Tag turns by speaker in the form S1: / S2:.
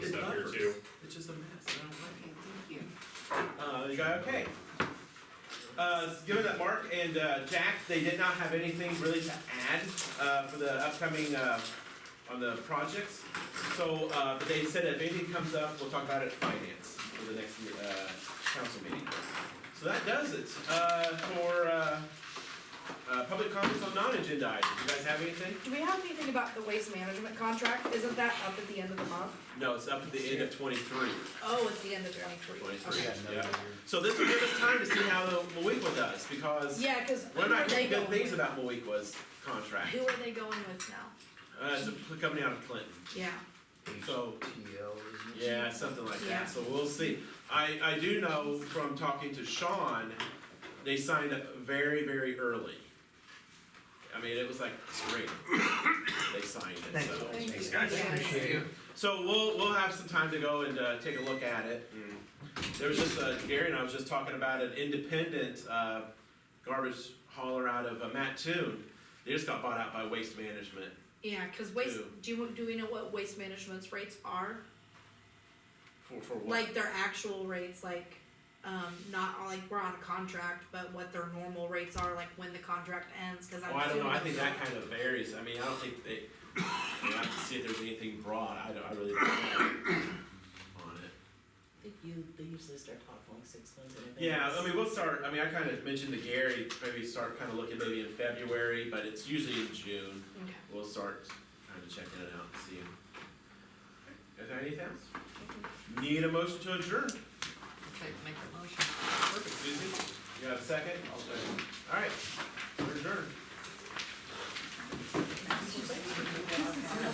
S1: you go, okay. Uh, given that Mark and, uh, Jack, they did not have anything really to add, uh, for the upcoming, uh, on the projects. So, uh, but they said if anything comes up, we'll talk about it at finance for the next, uh, council meeting. So that does it, uh, for, uh, uh, public comments on non-agenda items. You guys have anything?
S2: Do we have anything about the waste management contract? Isn't that up at the end of the month?
S1: No, it's up to the end of twenty-three.
S2: Oh, it's the end of twenty-three.
S1: Twenty-three.
S2: Okay.
S1: Yeah. So this will give us time to see how the Moequa does, because
S2: Yeah, cause who
S1: we're
S2: are
S1: not
S2: they
S1: getting
S2: going
S1: good things
S2: with?
S1: about Moequa's contract.
S2: Who are they going with now?
S1: Uh, it's a company out of Clinton,
S2: Yeah,
S1: so, yeah, something like
S2: Yeah.
S1: that, so we'll see. I, I do know from talking to Sean, they signed up very, very early. I mean, it was like spring, they signed it,
S3: Thank
S1: so.
S3: you.
S2: Thank
S4: Thanks,
S2: you.
S4: guys.
S2: Yeah.
S3: Appreciate it.
S1: So we'll, we'll have some time to go and, uh, take a look at it. There was just, uh, Gary and I was just talking about an independent, uh, garbage hauler out of uh, Mattoon. They just got bought out by Waste Management.
S2: yeah, cause waste,
S1: Who?
S2: do you, do we know what waste management's rates are?
S1: For, for what?
S2: Like their actual rates, like, um, not all- like we're on a contract, but what their normal rates are, like when the contract ends, cause I'm
S1: Well, Oh, I don't know, I
S2: assuming-
S1: think that kind of varies, I mean, I don't think they, I mean, I have to see if there's anything broad, I don't, I really don't know on it.
S5: They you, they usually start talking like six months in advance.
S1: Yeah, I mean, we'll start, I mean, I kinda mentioned to Gary, maybe start kinda looking maybe in February, but it's usually in June,
S2: Okay.
S1: we'll start kinda checking it out and seeing. Is there anything else? Need a motion to adjourn?
S5: make the motion.
S1: Perfect, Susie, you have a second? I'll second. Alright, we're adjourned.